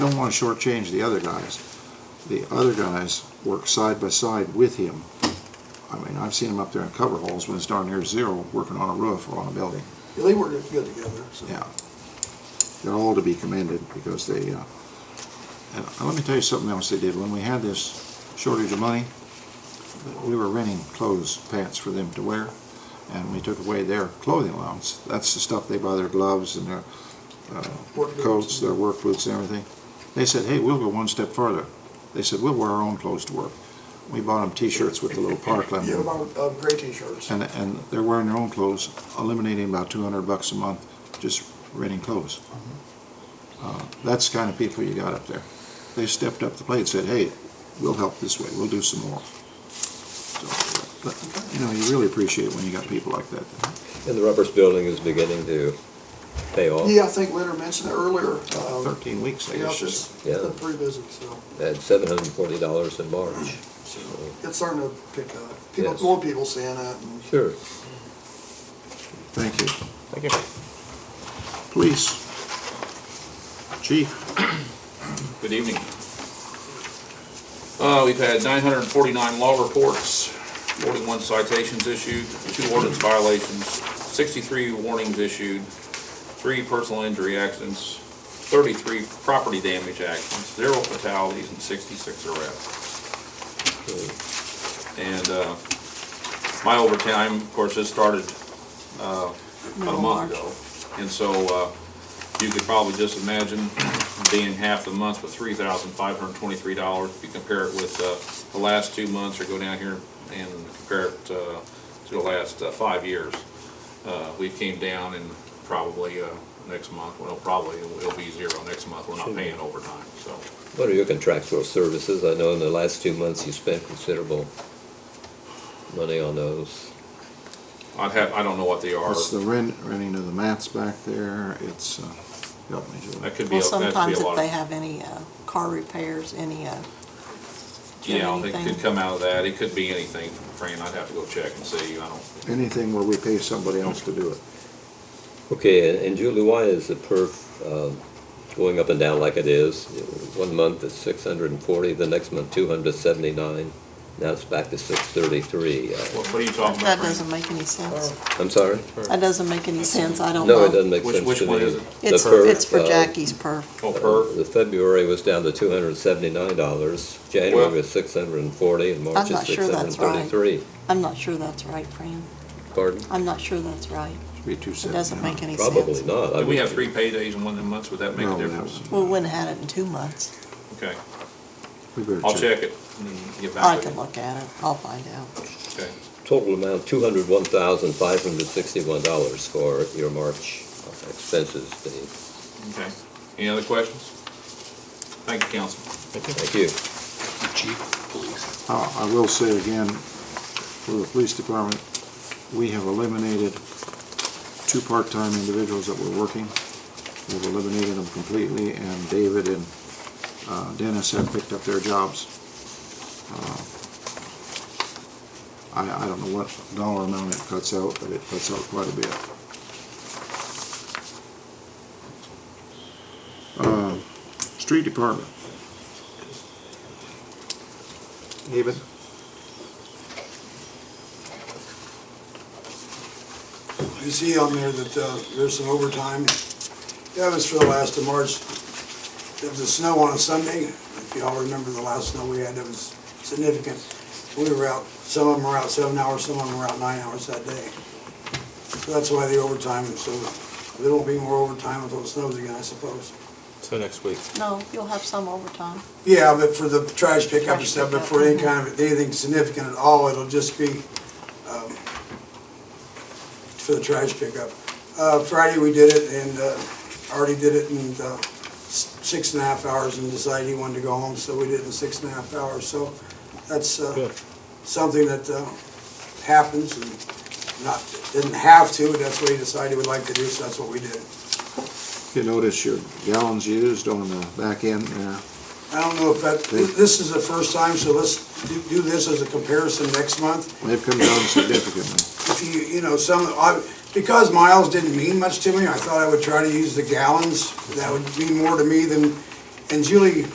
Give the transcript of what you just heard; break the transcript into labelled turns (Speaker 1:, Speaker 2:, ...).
Speaker 1: don't want to shortchange the other guys. The other guys work side by side with him. I mean, I've seen him up there in cover holes when it's darn near zero, working on a roof or on a building.
Speaker 2: Yeah, They work good together, so.
Speaker 1: Yeah. They're all to be commended because they, uh, and let me tell you something else they did. When we had this shortage of money, we were renting clothes, pants for them to wear, and we took away their clothing allowance. That's the stuff they buy their gloves and their
Speaker 2: Work boots.
Speaker 1: coats, their work boots and everything. They said, hey, we'll go one step further. They said, we'll wear our own clothes to work. We bought them t-shirts with the little Parkland
Speaker 2: Yeah, about, uh, gray t-shirts.
Speaker 1: and, and they're wearing their own clothes, eliminating about two hundred bucks a month just renting clothes. Uh, That's the kind of people you got up there. They stepped up to the plate and said, hey, we'll help this way, we'll do some more. So, but, You know, you really appreciate when you got people like that.
Speaker 3: And the Ruppers Building is beginning to pay off.
Speaker 2: Yeah, I think Leonard mentioned it earlier. Um,
Speaker 1: Thirteen weeks, I
Speaker 2: yeah,
Speaker 1: guess.
Speaker 2: it's
Speaker 1: just-
Speaker 2: just
Speaker 3: Yeah.
Speaker 2: been pretty busy, so.
Speaker 3: At seven hundred and forty dollars in March.
Speaker 2: so It's starting to pick up. People,
Speaker 3: Yes.
Speaker 2: more people seeing it and
Speaker 3: Sure.
Speaker 1: Thank you.
Speaker 4: Thank you.
Speaker 1: Police. Chief.
Speaker 5: Good evening. Uh, we've had nine hundred and forty-nine law reports, forty-one citations issued, two ordinance violations, sixty-three warnings issued, three personal injury accidents, thirty-three property damage accidents, zero fatalities, and sixty-six arrests. And, uh, my overtime, of course, this started, uh, about a month ago. And so, uh, you could probably just imagine being half the month with three thousand five hundred twenty-three dollars. If you compare it with, uh, the last two months or go down here and compare it, uh, to the last uh, five years. Uh, we came down and probably, uh, next month, well, probably it'll be zero next month. We're not paying overtime, so.
Speaker 3: What are your contractual services? I know in the last two months you spent considerable money on those.
Speaker 5: I'd have, I don't know what they are.
Speaker 1: It's the rent, renting of the mats back there, it's, uh, help me, Julie.
Speaker 5: That could be,
Speaker 6: Well,
Speaker 5: a- that could be
Speaker 6: sometimes
Speaker 5: a
Speaker 6: if
Speaker 5: lot
Speaker 6: they
Speaker 5: of,
Speaker 6: have any uh, car repairs, any, uh,
Speaker 5: yeah, they
Speaker 6: anything.
Speaker 5: could come out of that. It could be anything, Fran. I'd have to go check and see. I don't,
Speaker 1: Anything where we pay somebody else to do it.
Speaker 3: Okay, and Julie, why is the perf um, going up and down like it is? One month it's six hundred and forty, the next month two hundred and seventy-nine. Now it's back to six thirty-three.
Speaker 5: what, what are you talking about,
Speaker 6: that
Speaker 5: Fran?
Speaker 6: doesn't make any sense.
Speaker 3: I'm sorry?
Speaker 6: That doesn't make any sense, I don't know.
Speaker 3: No, it doesn't make
Speaker 5: Oh,
Speaker 3: sense
Speaker 5: Which-
Speaker 3: to me.
Speaker 5: which one is it?
Speaker 3: The
Speaker 6: It's,
Speaker 3: perf,
Speaker 6: it's for
Speaker 3: uh,
Speaker 6: Jackie's perf.
Speaker 5: Oh, per?
Speaker 3: Uh, The February was down to two hundred and seventy-nine dollars, January
Speaker 5: Well-
Speaker 3: was six hundred and forty, and March
Speaker 6: I'm
Speaker 3: is
Speaker 6: not
Speaker 3: six
Speaker 6: sure
Speaker 3: hundred and
Speaker 6: that's right.
Speaker 3: thirty-three.
Speaker 6: I'm not sure that's right, Fran.
Speaker 3: Pardon?
Speaker 6: I'm not sure that's right.
Speaker 1: Should be two
Speaker 6: It
Speaker 1: seventy.
Speaker 6: doesn't make any sense.
Speaker 3: Probably not. I
Speaker 5: Did we
Speaker 3: would-
Speaker 5: have three paydays in one of the months? Would that make a
Speaker 1: No, that
Speaker 5: difference?
Speaker 6: We wouldn't have had it in two months.
Speaker 5: Okay,
Speaker 1: We better
Speaker 5: I'll check it and get
Speaker 6: I
Speaker 5: back to
Speaker 6: can
Speaker 5: you.
Speaker 6: look at it, I'll find out.
Speaker 5: Okay.
Speaker 3: Total amount, two hundred one thousand five hundred sixty-one dollars for your March expenses, Dave.
Speaker 5: Okay. Any other questions? Thank you, council.
Speaker 3: Thank you.
Speaker 1: Uh, I will say again, for the police department, we have eliminated two part-time individuals that were working. We've eliminated them completely, and David and uh, Dennis have picked up their jobs. Uh, I, I don't know what dollar amount it cuts out, but it cuts out quite a bit. Uh, Street department. David?
Speaker 2: you see on there that, uh, there's some overtime. That was for the last of March. There was a snow on a Sunday. If y'all remember the last snow we had, it was significant. We were out, some of them were out seven hours, some of them were out nine hours that day. So that's why the overtime, so there won't be more overtime with those snows again, I suppose.
Speaker 4: So next week.
Speaker 6: No, you'll have some overtime.
Speaker 2: Yeah, but for the trash pickup and
Speaker 6: Trash
Speaker 2: stuff, but
Speaker 6: pickup,
Speaker 2: for any
Speaker 6: mhm.
Speaker 2: kind of, anything significant at all, it'll just be, um, for the trash pickup. Uh, Friday, we did it, and, uh, already did it in, uh, s- six and a half hours and decided he wanted to go home, so we did it in six and a half hours, so that's, uh,
Speaker 4: Good.
Speaker 2: something that, uh, happens and not, didn't have to, but that's what he decided he would like to do, so that's what we did.
Speaker 1: You notice your gallons used on the back end uh, there.
Speaker 2: I don't know if that, this is the first time, so let's do- do this as a comparison next month.
Speaker 1: They've come down significantly.
Speaker 2: If you, you know, some, I, because miles didn't mean much to me, I thought I would try to use the gallons. That would mean more to me than, And Julie